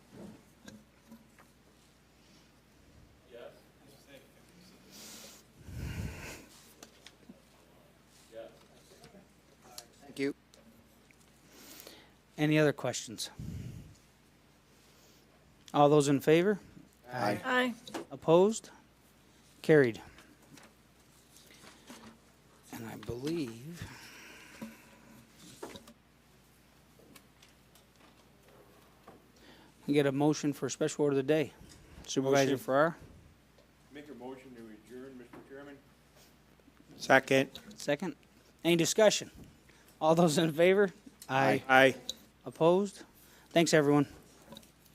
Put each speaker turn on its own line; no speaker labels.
Any other questions? All those in favor?
Aye.
Aye.
Opposed? Carried. And I believe. We get a motion for special order of the day. Supervisor
Motion.
Farrar,
Make a motion to adjourn, Mr. Chairman?
Second.
second. Any discussion? All those in favor? Aye.
Aye.
Opposed? Thanks, everyone.